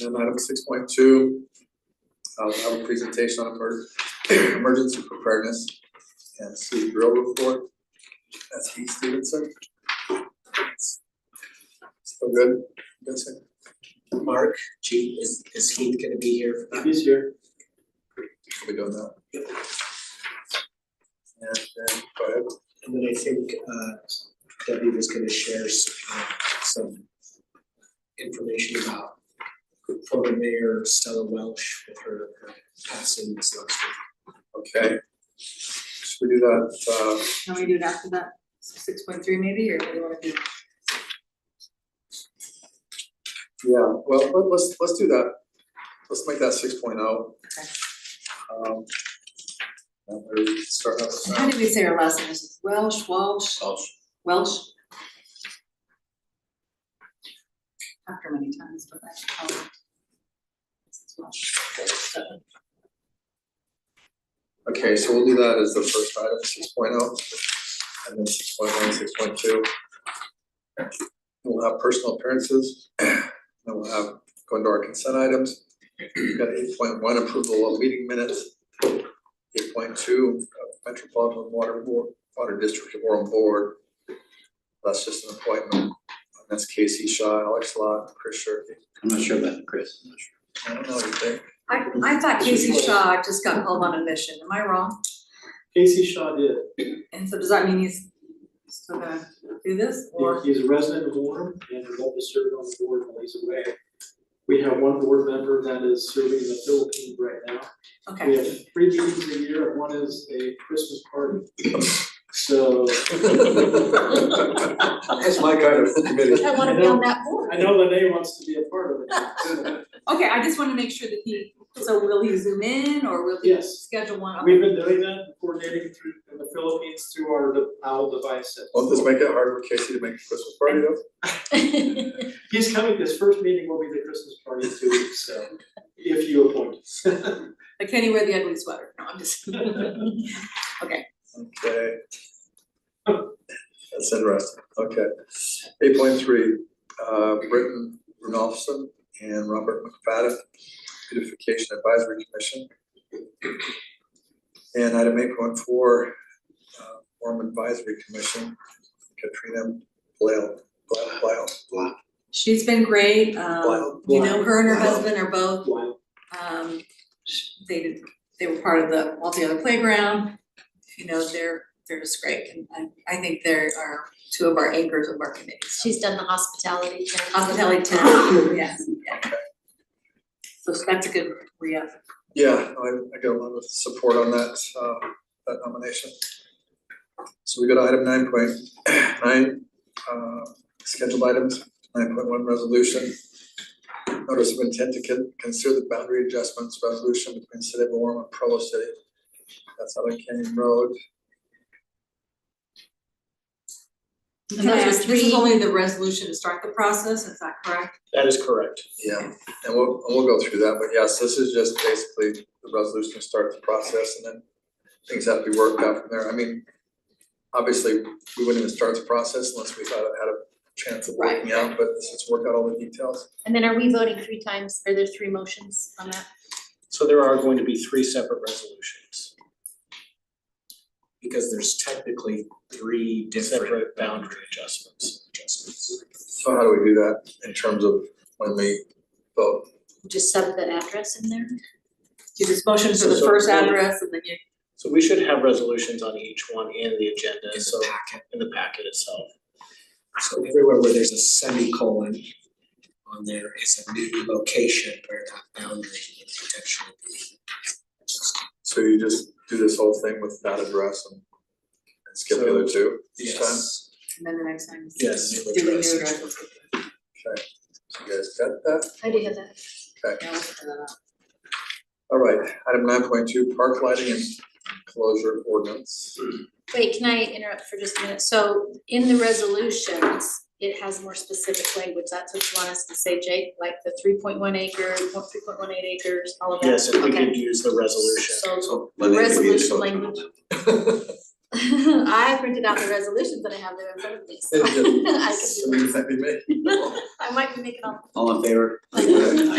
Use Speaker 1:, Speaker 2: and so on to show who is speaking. Speaker 1: And item six point two, I'll have a presentation on emer- emergency preparedness and city drill report. That's Heath Stevenson. Still good, Vincent?
Speaker 2: Mark, gee, is is Heath gonna be here?
Speaker 3: He's here.
Speaker 1: Are we doing that? And then, go ahead.
Speaker 2: And then I think uh Debbie was gonna share s- uh, some information about former mayor Stella Welch with her her passing this last week.
Speaker 1: Okay. Should we do that, uh,
Speaker 4: Can we do it after that, six point three maybe, or what do you wanna do?
Speaker 1: yeah, well, let- let's, let's do that. Let's make that six oh.
Speaker 4: Okay.
Speaker 1: Um. And we start off with
Speaker 4: How
Speaker 1: that.
Speaker 4: did we say our last name, Is it Welsh, Welsh, Welsh? After many times, but I call it. This is Welsh. So,
Speaker 1: Okay, so we'll do that as the first item, six oh, and then six point one, six point two. We'll have personal appearances, and we'll have, go into our consent items. We've got eight point one, approval of meeting minutes. Eight point two, Metropolitan Water Board, Water District of Orem Board. That's just an appointment, And that's Casey Shaw, Alex Lot, Chris Shirky.
Speaker 3: I'm not sure about Chris. I'm not sure.
Speaker 1: I don't know what you think.
Speaker 4: I I thought Casey Shaw just got called on a mission, am I wrong?
Speaker 3: Casey Shaw did.
Speaker 4: And so does that mean he's still gonna do this,
Speaker 3: He-
Speaker 4: or?
Speaker 3: He's a resident of Warren and would love to serve on the board while he's away. We have one board member that is serving in the Philippines right now.
Speaker 4: Okay,
Speaker 3: We have three meetings a year, and one is a Christmas party. So
Speaker 1: That's my kind of committee.
Speaker 4: I wanna be on that board.
Speaker 3: I know Lene wants to be a part of it.
Speaker 4: Okay, I just wanna make sure that he, so will he zoom in, or will he
Speaker 3: Yes,
Speaker 4: schedule one? Okay.
Speaker 3: we've been doing that, coordinating through in the Philippines through our de- owl device.
Speaker 1: Won't Oh, this make it harder for Casey to make a Christmas party though?
Speaker 3: He's coming, his first meeting will be the Christmas party in two weeks, so if you appoint.
Speaker 4: Like, can he wear the ugly sweater? No, I'm just.
Speaker 1: Okay. That's interesting, okay. Eight point three, uh, Britton Runolfson and Robert McFadden, beautification advisory commission. And item eight point four, uh, Warm advisory commission, Katrina Blale, Blale, Blale.
Speaker 4: She's been great,
Speaker 1: Wow.
Speaker 4: um, you know, her and her
Speaker 1: Wow.
Speaker 4: husband are both,
Speaker 3: Why?
Speaker 4: um, sh- they did, they were part of the multi-other playground. You know, they're, they're just great, and I, I think they are two of our anchors of our committee, so.
Speaker 5: She's done the hospitality. training.
Speaker 4: Hospitality town, yes, yeah. So that's a good re-up.
Speaker 1: Yeah, I, I got a lot of support on that, uh, that nomination. So we go to item nine point nine, uh, scheduled items, nine point one resolution. Notice of intent to con- consider the boundary adjustments resolution between City of Orem and Provo City. That's out on Canyon Road.
Speaker 5: And those are
Speaker 4: This is
Speaker 5: three-
Speaker 4: only the resolution to start the process, is that correct?
Speaker 3: That is correct.
Speaker 1: Yeah, and we'll, and we'll go through that, but yes, this is just basically the resolution to start the process and then things have to be worked out from there. I mean, obviously, we wouldn't even start the process unless we thought it had a chance of working out, but let's just work out all the details.
Speaker 5: And then are we voting three times? Are there three motions on that?
Speaker 6: So there are going to be three separate resolutions,
Speaker 2: Because there's technically three different
Speaker 6: separate
Speaker 2: boundaries.
Speaker 6: boundary adjustments, adjustments.
Speaker 1: So how do we do that in terms of when we vote?
Speaker 5: Just sub the address in there?
Speaker 4: Do this motion for
Speaker 6: So-
Speaker 4: the
Speaker 6: so-
Speaker 4: first address and then you,
Speaker 6: So we should have resolutions on each one in the agenda, so
Speaker 2: packet.
Speaker 6: in the packet itself.
Speaker 2: So everywhere where there's a semicolon on there is a new location where that boundary would potentially be.
Speaker 1: So you just do this whole thing with that address and and skip the other two each time?
Speaker 2: Yes.
Speaker 4: and then the next time.
Speaker 6: Yes.
Speaker 2: New
Speaker 4: Do the new
Speaker 2: address.
Speaker 4: address.
Speaker 1: Okay, so you guys got that?
Speaker 5: I do have that.
Speaker 4: Yeah, we'll figure that out.
Speaker 1: All right, item nine point two, park lighting and closure ordinance.
Speaker 5: Wait, can I interrupt for just a minute? So in the resolutions, it has more specific language. That's what you want us to say, Jake? Like the three point one acre, three point one eight acres, all of that?
Speaker 6: Yes, if we
Speaker 5: Okay.
Speaker 6: could use the resolution.
Speaker 5: So the resolution language. I printed out the resolutions that I have there in front of me, so I can do
Speaker 1: Something that we make.
Speaker 5: I might be making up.
Speaker 7: All in favor?
Speaker 5: Aye.